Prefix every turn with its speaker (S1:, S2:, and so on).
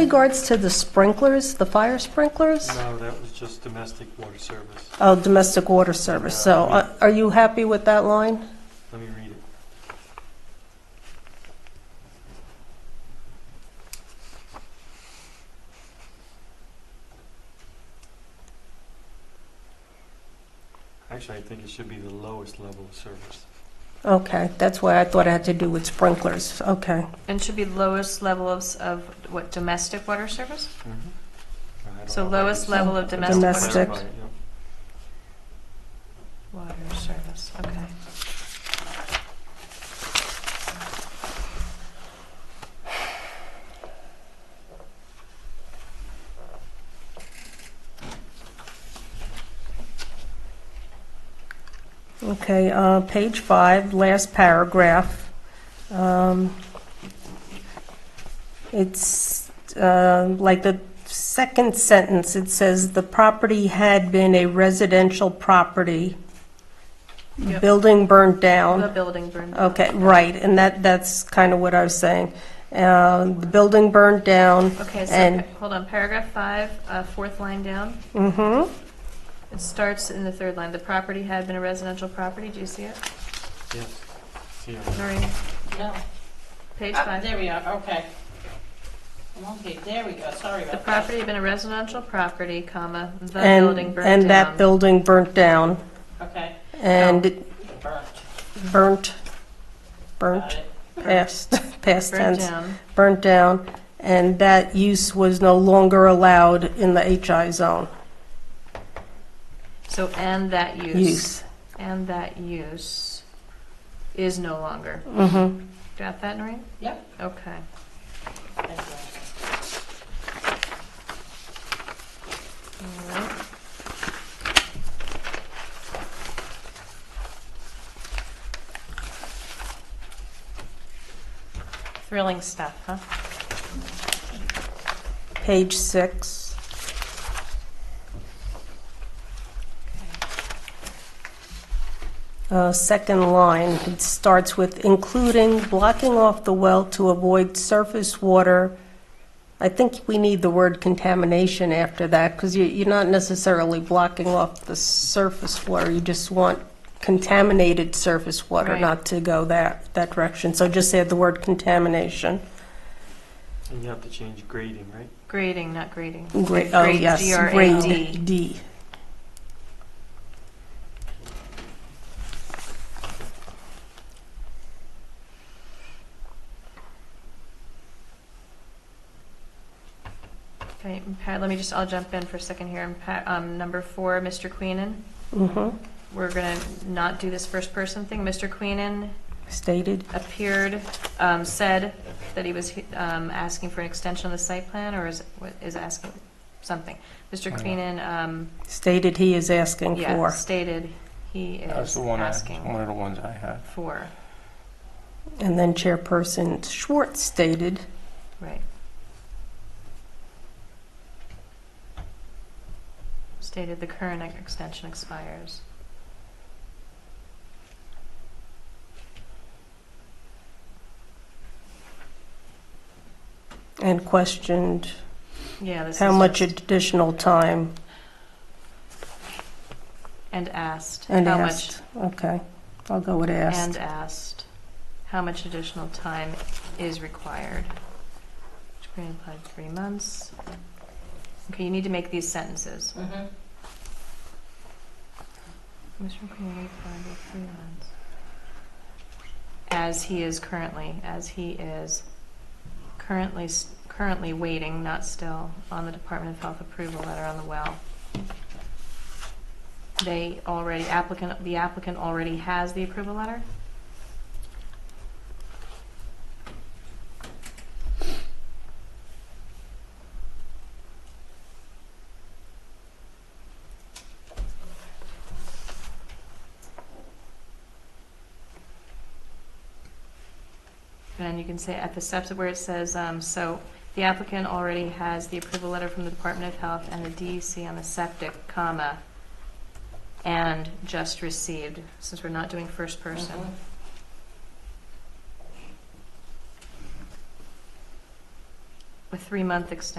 S1: Regards to the sprinklers, the fire sprinklers?
S2: No, that was just domestic water service.
S1: Oh, domestic water service, so uh, are you happy with that line?
S2: Let me read it. Actually, I think it should be the lowest level of service.
S1: Okay, that's why I thought it had to do with sprinklers, okay.
S3: And should be lowest level of, s- of what, domestic water service?
S2: I don't
S3: So
S2: know if I
S3: lowest
S2: just
S3: level of domestic water
S1: Domestic.
S3: service.
S2: clarified, yeah.
S3: Water service, okay.
S1: Okay, uh, page five, last paragraph. Um, It's uh, like the second sentence, it says, "The property had been a residential property.
S3: Yep.
S1: Building burned down."
S3: The building burned down.
S1: Okay, right, and that, that's kind of what I was saying. Uh, The building burned down,
S3: Okay, so,
S1: And-
S3: hold on, paragraph five, uh, fourth line down.
S1: mm-hmm,
S3: It starts in the third line. The property had been a residential property. Do you see it?
S2: Yes. See, I
S3: Noreen,
S4: No.
S3: page
S4: Ah,
S3: five.
S4: There we are, okay. I'm okay, there we go, sorry
S3: The
S4: about that.
S3: property had been a residential property, comma, the
S1: and,
S3: building burned down.
S1: and that building burnt down,
S4: Okay,
S1: and it
S4: burnt,
S1: burnt,
S4: got
S1: burnt,
S4: it.
S1: past, past
S3: Burned
S1: tense,
S3: down.
S1: burnt down, and that use was no longer allowed in the HI zone,
S3: So, and that
S1: use.
S3: And that use is no longer.
S1: Mm-hmm,
S3: Got that, Noreen?
S4: Yep.
S3: Okay.
S4: Thank you.
S3: All right. Thrilling stuff, huh?
S1: page six. Uh, Second line, it starts with including blocking off the well to avoid surface water. I think we need the word contamination after that, because you're not necessarily blocking off the surface water. You just want contaminated surface water
S3: Right.
S1: not to go that, that direction. So just add the word contamination.
S2: And you have to change grading, right?
S3: Grading, not grading.
S1: Great, oh,
S3: Grade
S1: yes,
S3: G-R-A-D.
S1: grade D.
S3: Okay, and Pat, let me just, I'll jump in for a second here. And Pat, um, number four, Mr. Queenan.
S1: Mhm.
S3: We're gonna not do this first person thing. Mr. Queenan
S1: Stated,
S3: appeared, um, said that he was, um, asking for an extension of the site plan, or is, what- is asking something. Mr.
S5: Yeah.
S3: Queenan, um,
S1: stated he is asking
S3: yeah,
S1: for.
S3: stated he
S5: That's
S3: is
S5: the one I, one
S3: asking
S5: of the ones I had.
S3: for,
S1: And then Chairperson Schwartz stated,
S3: right. Stated the current ex- extension expires.
S1: and questioned
S3: Yeah, this is.
S1: how much
S3: just-
S1: additional time,
S3: And asked.
S1: and
S3: how much
S1: asked. Okay, I'll go with asked.
S3: And asked how much additional time is required. Which Green applied three months. Okay, you need to make these sentences.
S4: Mhm.
S3: Mr. Green applied for three months. As he is currently, as he is currently, s- currently waiting, not still, on the Department of Health approval letter on the well. They already, applicant, the applicant already has the approval letter? And you can say at the steps where it says, um, so the applicant already has the approval letter from the Department of Health and the DEC on the septic, comma, and just received, since we're not doing first person.
S4: Mhm.
S3: a three-month extension